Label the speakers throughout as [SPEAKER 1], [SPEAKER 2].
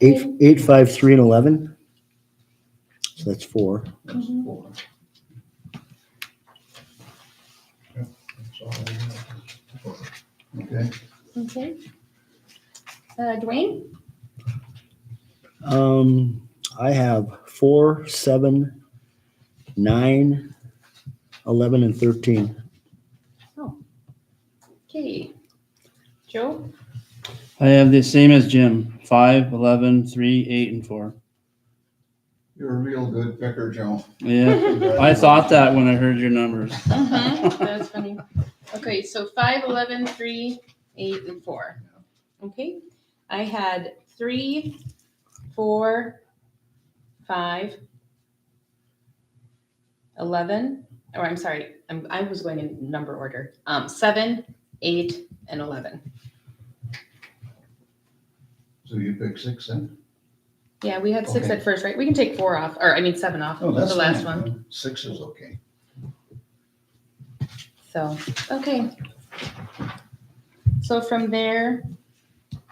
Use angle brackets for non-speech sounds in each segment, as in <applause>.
[SPEAKER 1] Eight, eight, five, three, and eleven. So that's four.
[SPEAKER 2] That's
[SPEAKER 3] Mhm.
[SPEAKER 2] four. Yeah, that's all I have. Four. Okay,
[SPEAKER 3] Okay. Uh, Dwayne?
[SPEAKER 1] Um, I have four, seven, nine, eleven, and thirteen.
[SPEAKER 3] Okay. Joe?
[SPEAKER 4] I have the same as Jim, five, eleven, three, eight, and four.
[SPEAKER 2] you're a real good picker, Joe.
[SPEAKER 4] Yeah, I thought that when I heard your numbers. <laughs>
[SPEAKER 3] Mhm, That's funny. Okay, so five, eleven, three, eight, and four. Okay, I had three, four, five, eleven, or I'm sorry, I'm, I was going in number order. Um, seven, eight, and eleven.
[SPEAKER 2] So you pick six then?
[SPEAKER 3] Yeah, we had six
[SPEAKER 2] Okay.
[SPEAKER 3] at first, right? We can take four off, or I mean, seven off, the
[SPEAKER 2] Oh, that's
[SPEAKER 3] last
[SPEAKER 2] fine.
[SPEAKER 3] one.
[SPEAKER 2] Six is okay.
[SPEAKER 3] So, okay. So from there,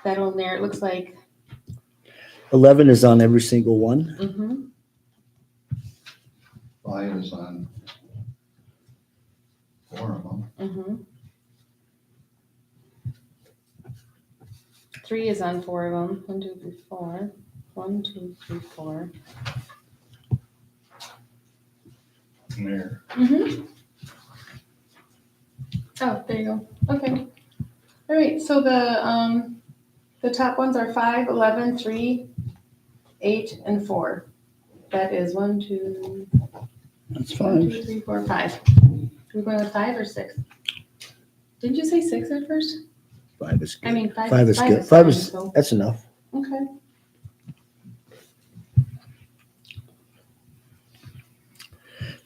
[SPEAKER 3] that'll narrow, it looks like,
[SPEAKER 1] Eleven is on every single one.
[SPEAKER 3] mhm,
[SPEAKER 2] Five is on four of them.
[SPEAKER 3] mhm. Three is on four of them, one, two, three, four. One, two, three, four.
[SPEAKER 2] And There.
[SPEAKER 3] Mm-hmm. Oh, there you go. Okay. All right, so the, um, the top ones are five, eleven, three, eight, and four. That is one, two,
[SPEAKER 4] That's
[SPEAKER 3] One,
[SPEAKER 4] five.
[SPEAKER 3] two, three, four, five. We're going with five or six? Didn't you say six at first?
[SPEAKER 1] Five is
[SPEAKER 3] I
[SPEAKER 1] good.
[SPEAKER 3] mean, five.
[SPEAKER 1] Five is good. Five is,
[SPEAKER 3] fine, so-
[SPEAKER 1] that's enough.
[SPEAKER 3] Okay.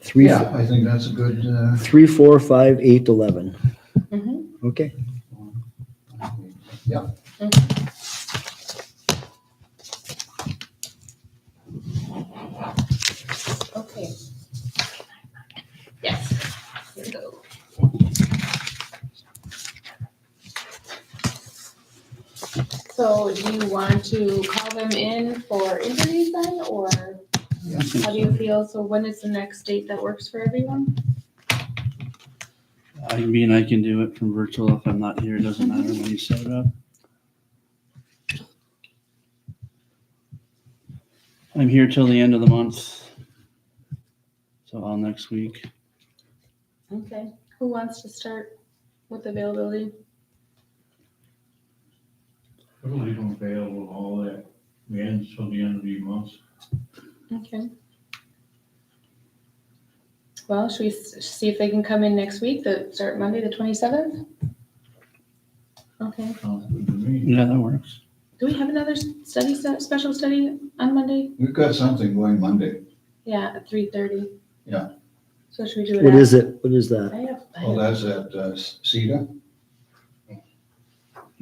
[SPEAKER 1] Three, f-
[SPEAKER 2] Yeah, I think that's a good, uh,
[SPEAKER 1] three, four, five, eight, eleven.
[SPEAKER 3] Mhm.
[SPEAKER 1] Okay.
[SPEAKER 2] yeah.
[SPEAKER 3] Okay. Yes. Here we go. So do you want to call them in for interviews then, or how do you feel? So when is the next date that works for everyone?
[SPEAKER 4] I mean, I can do it from virtual if I'm not here. It doesn't matter when you set it up. I'm here till the end of the month. So all next week.
[SPEAKER 3] Okay. Who wants to start with availability?
[SPEAKER 5] We're leave them available all that, we end till the end of the month.
[SPEAKER 3] Okay. Well, should we s- see if they can come in next week, the, start Monday, the twenty-seventh? Okay,
[SPEAKER 5] Sounds good to me.
[SPEAKER 4] Yeah, that works.
[SPEAKER 3] do we have another s- study, se- special study on Monday?
[SPEAKER 2] We've got something going Monday.
[SPEAKER 3] Yeah, at three thirty.
[SPEAKER 2] Yeah.
[SPEAKER 3] So should we do it?
[SPEAKER 1] What
[SPEAKER 3] at-
[SPEAKER 1] is it? What is that?
[SPEAKER 3] I have, I
[SPEAKER 2] Well,
[SPEAKER 3] have,
[SPEAKER 2] that's at uh, CETA.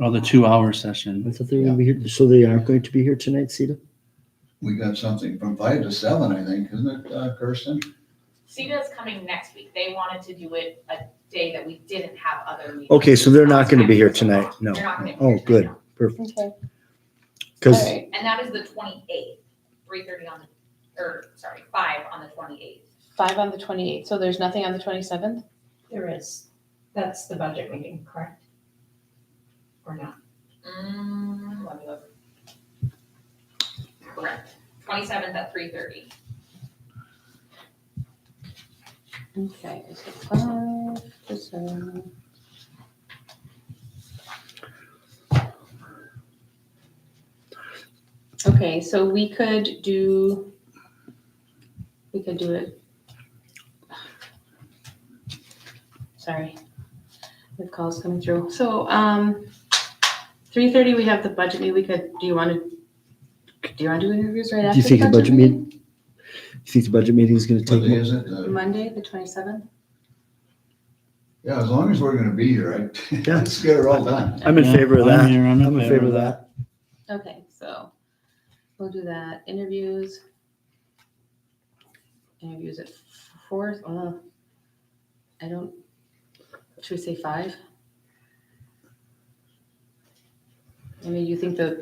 [SPEAKER 4] Oh, the two hour session.
[SPEAKER 1] I thought they were gonna be here, so they aren't going to be here tonight, Sita?
[SPEAKER 2] We got something from five to seven, I think, isn't it, uh, Kirsten?
[SPEAKER 6] CETA is coming next week. They wanted to do it a day that we didn't have other meetings.
[SPEAKER 1] Okay, so they're not gonna be here tonight, no.
[SPEAKER 6] They're not gonna be
[SPEAKER 1] Oh,
[SPEAKER 6] here tonight,
[SPEAKER 1] good,
[SPEAKER 6] no.
[SPEAKER 1] perfect.
[SPEAKER 3] okay,
[SPEAKER 1] Because
[SPEAKER 3] all right,
[SPEAKER 6] And that is the twenty-eighth, three thirty on the, or, sorry, five on the twenty-eighth.
[SPEAKER 3] five on the twenty-eighth, so there's nothing on the twenty-seventh?
[SPEAKER 7] There is. That's the budget meeting, correct? Or not?
[SPEAKER 6] Mm, let me look. Correct. Twenty-seventh at three thirty.
[SPEAKER 3] Okay, so five, to seven. Okay, so we could do, we could do it. Sorry, the call's coming through. So, um, three thirty, we have the budget meeting. We could, do you want to, do you want to do interviews right
[SPEAKER 1] you
[SPEAKER 3] after?
[SPEAKER 1] think the budget meet- you think the budget meeting is gonna
[SPEAKER 2] What
[SPEAKER 1] take,
[SPEAKER 2] day
[SPEAKER 1] mo-
[SPEAKER 2] is it? Uh,
[SPEAKER 3] Monday, the twenty-seventh?
[SPEAKER 2] Yeah, as long as we're gonna be here, I,
[SPEAKER 1] Yeah.
[SPEAKER 2] <laughs> let's get it all done.
[SPEAKER 1] I'm in
[SPEAKER 4] Yeah,
[SPEAKER 1] favor of
[SPEAKER 4] I'm
[SPEAKER 1] that.
[SPEAKER 4] here,
[SPEAKER 1] I'm in favor of that.
[SPEAKER 3] Okay, so we'll do that. Interviews. Interviews at four. oh, I don't, should we say five? I mean, you think the